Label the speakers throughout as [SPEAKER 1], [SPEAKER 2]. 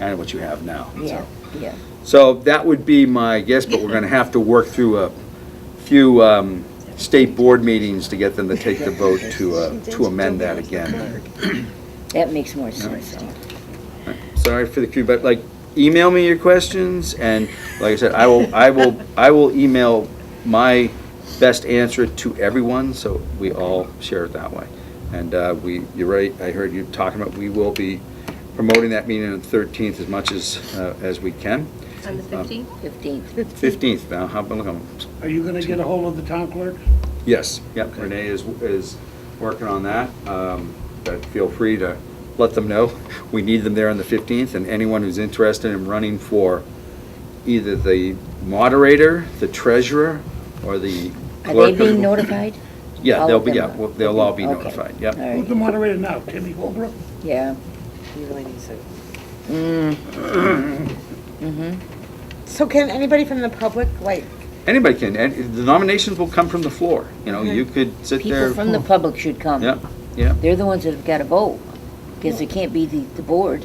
[SPEAKER 1] and what you have now.
[SPEAKER 2] Yeah, yeah.
[SPEAKER 1] So that would be my guess, but we're gonna have to work through a few um, state board meetings to get them to take the vote to, uh, to amend that again.
[SPEAKER 2] That makes more sense.
[SPEAKER 1] Sorry for the queue, but like, email me your questions, and like I said, I will, I will, I will email my best answer to everyone, so we all share it that way. And uh, we, you're right, I heard you talking about, we will be promoting that meeting on the 13th as much as, uh, as we can.
[SPEAKER 3] On the 15th?
[SPEAKER 2] Fifteenth.
[SPEAKER 1] 15th now, how, about- look, I'm
[SPEAKER 4] Are you gonna get a hold of the town clerk?
[SPEAKER 1] Yes, yep, Renee is, is working on that, um, but feel free to let them know. We need them there on the 15th, and anyone who's interested in running for either the moderator, the treasurer, or the
[SPEAKER 2] Are
[SPEAKER 1] clerk.
[SPEAKER 2] they
[SPEAKER 1] of-
[SPEAKER 2] being notified?
[SPEAKER 1] Yeah,
[SPEAKER 2] All
[SPEAKER 1] they'll
[SPEAKER 2] of
[SPEAKER 1] be,
[SPEAKER 2] them
[SPEAKER 1] yeah,
[SPEAKER 2] are?
[SPEAKER 1] well, they'll all be
[SPEAKER 2] Okay.
[SPEAKER 1] notified, yep.
[SPEAKER 2] All
[SPEAKER 4] Who's
[SPEAKER 2] right,
[SPEAKER 4] the moderator now, Timmy Holbrook?
[SPEAKER 2] yeah.
[SPEAKER 5] You really need to.
[SPEAKER 2] Mm. Mhm.
[SPEAKER 5] So can anybody from the public, like,
[SPEAKER 1] Anybody can, and the nominations will come from the floor, you know, you could sit
[SPEAKER 2] Mm-hmm. People
[SPEAKER 1] there.
[SPEAKER 2] from the public should come.
[SPEAKER 1] Yep, yep.
[SPEAKER 2] They're the ones that have got to vote, because it can't be the, the board.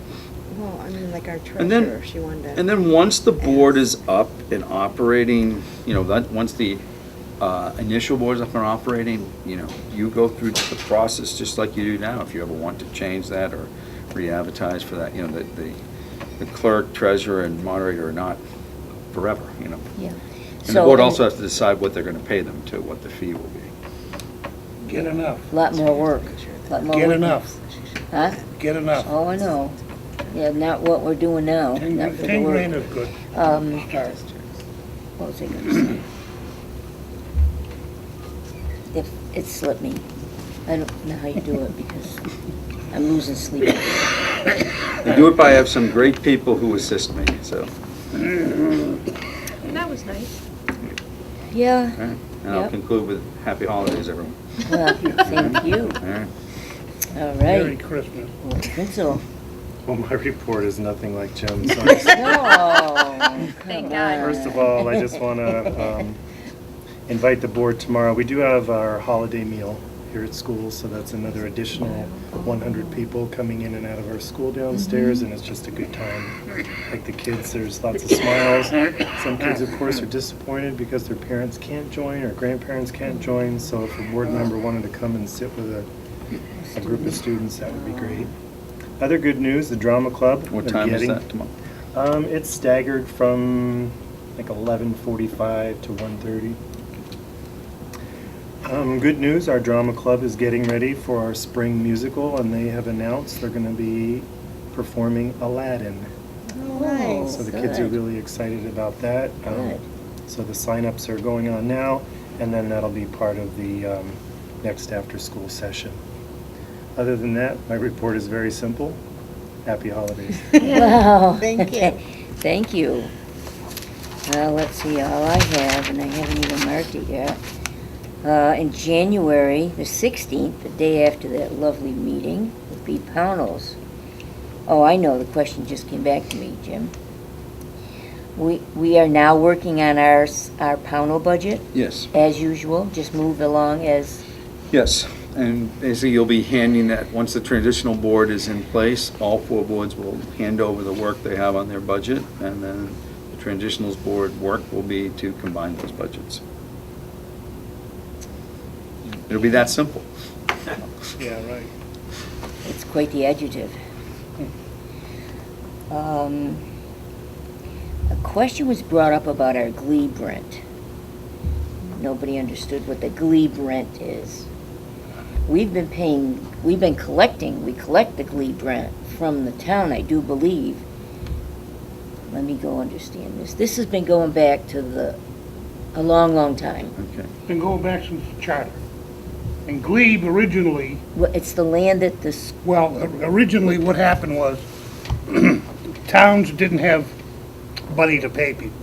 [SPEAKER 5] well, I mean, like our
[SPEAKER 1] And then-
[SPEAKER 5] treasurer, she wanted
[SPEAKER 1] And
[SPEAKER 5] to.
[SPEAKER 1] then once the board is up and operating, you know, that, once the uh, initial board is up and operating, you know, you go through the process just like you do now, if you ever want to change that or re-advertise for that, you know, that the the clerk, treasurer, and moderator are not forever, you know.
[SPEAKER 2] Yeah.
[SPEAKER 1] And the
[SPEAKER 2] So-
[SPEAKER 1] board also has to decide what they're going to pay them to, what the fee will be.
[SPEAKER 4] Get enough,
[SPEAKER 2] Lot more work, lot more.
[SPEAKER 4] get
[SPEAKER 2] work.
[SPEAKER 4] enough,
[SPEAKER 2] Huh?
[SPEAKER 4] get enough.
[SPEAKER 2] Oh, I know. Yeah, not what we're doing now.
[SPEAKER 4] Ten
[SPEAKER 2] not for the
[SPEAKER 4] ten
[SPEAKER 2] work.
[SPEAKER 4] grand is good.
[SPEAKER 2] Um,
[SPEAKER 4] Start.
[SPEAKER 2] What was I gonna say? If, it slipped me. I don't know how you do it because I'm losing sleep.
[SPEAKER 1] I do it by, I have some great people who assist me, so,
[SPEAKER 3] That was nice.
[SPEAKER 1] all
[SPEAKER 2] Yeah,
[SPEAKER 1] right. And I'll
[SPEAKER 2] Yep.
[SPEAKER 1] conclude with happy holidays, everyone.
[SPEAKER 2] well, thank you.
[SPEAKER 1] All right?
[SPEAKER 2] All
[SPEAKER 4] Merry
[SPEAKER 2] right.
[SPEAKER 4] Christmas.
[SPEAKER 2] Well, Prinzel.
[SPEAKER 6] Well, my report is nothing like Jim's.
[SPEAKER 2] No.
[SPEAKER 3] Thank
[SPEAKER 2] come
[SPEAKER 3] God.
[SPEAKER 6] First of
[SPEAKER 2] on.
[SPEAKER 6] all, I just um, want to invite the board tomorrow. We do have our holiday meal here at school, so that's another additional 100 people coming in and out of our school downstairs, and it's just a good time. Like the kids, there's lots of smiles. Some kids, of course, are disappointed because their parents can't join or grandparents can't join, so if a board member wanted to come and sit with a a group of students, that would be great. Other good news, the drama club.
[SPEAKER 1] What
[SPEAKER 6] they're
[SPEAKER 1] time is
[SPEAKER 6] getting-
[SPEAKER 1] that tomorrow?
[SPEAKER 6] um, it's staggered from like eleven forty-five to one thirty. Um, good news, our drama club is getting ready for our spring musical and they have announced they're gonna be performing Aladdin.
[SPEAKER 5] Oh,
[SPEAKER 2] Nice.
[SPEAKER 6] So the kids are
[SPEAKER 2] Good.
[SPEAKER 6] really excited about that. Um,
[SPEAKER 2] Good.
[SPEAKER 6] So the signups are going on now and then that'll be part of the, um, next after-school session. Other than that, my report is very simple. Happy holidays.
[SPEAKER 1] Oh.
[SPEAKER 2] Wow.
[SPEAKER 5] Thank you.
[SPEAKER 2] Thank you. Well, let's see, all I have, and I haven't even marked it yet. Uh, in January, the sixteenth, the day after that lovely meeting, would be Pownell's. Oh, I know, the question just came back to me, Jim. We, we are now working on our, s- our Pownell budget,
[SPEAKER 1] Yes.
[SPEAKER 2] as usual, just move along as,
[SPEAKER 1] Yes, and basically you'll be handing that, once the transitional board is in place, all four boards will hand over the work they have on their budget, and then the transitionals board work will be to combine those budgets. It'll be that simple.
[SPEAKER 4] Yeah, right.
[SPEAKER 2] it's quite the adjective. Um, A question was brought up about our glebe rent. Nobody understood what the glebe rent is. We've been paying, we've been collecting, we collect the glebe rent from the town, I do believe. Let me go understand this. This has been going back to the, a long, long time.
[SPEAKER 1] Okay.
[SPEAKER 4] Been going back since the charter. And Glebe originally,
[SPEAKER 2] Well, It's the land that this,
[SPEAKER 4] well, originally what happened was towns didn't have money to pay people.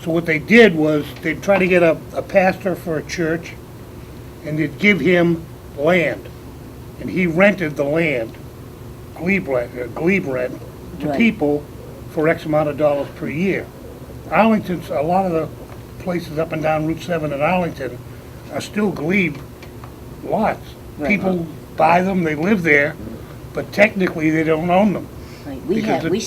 [SPEAKER 4] So what they did was they'd try to get a, a pastor for a church and they'd give him land. And he rented the land, glebe rent, uh, glebe rent, to
[SPEAKER 2] Right.
[SPEAKER 4] people for X amount of dollars per year. Arlington's, a lot of the places up and down Route 7 in Arlington are still glebe lots.
[SPEAKER 2] Right.
[SPEAKER 4] People buy them, they live there, but technically they don't own them.
[SPEAKER 2] like, we
[SPEAKER 4] Because
[SPEAKER 2] have,
[SPEAKER 4] the-
[SPEAKER 2] we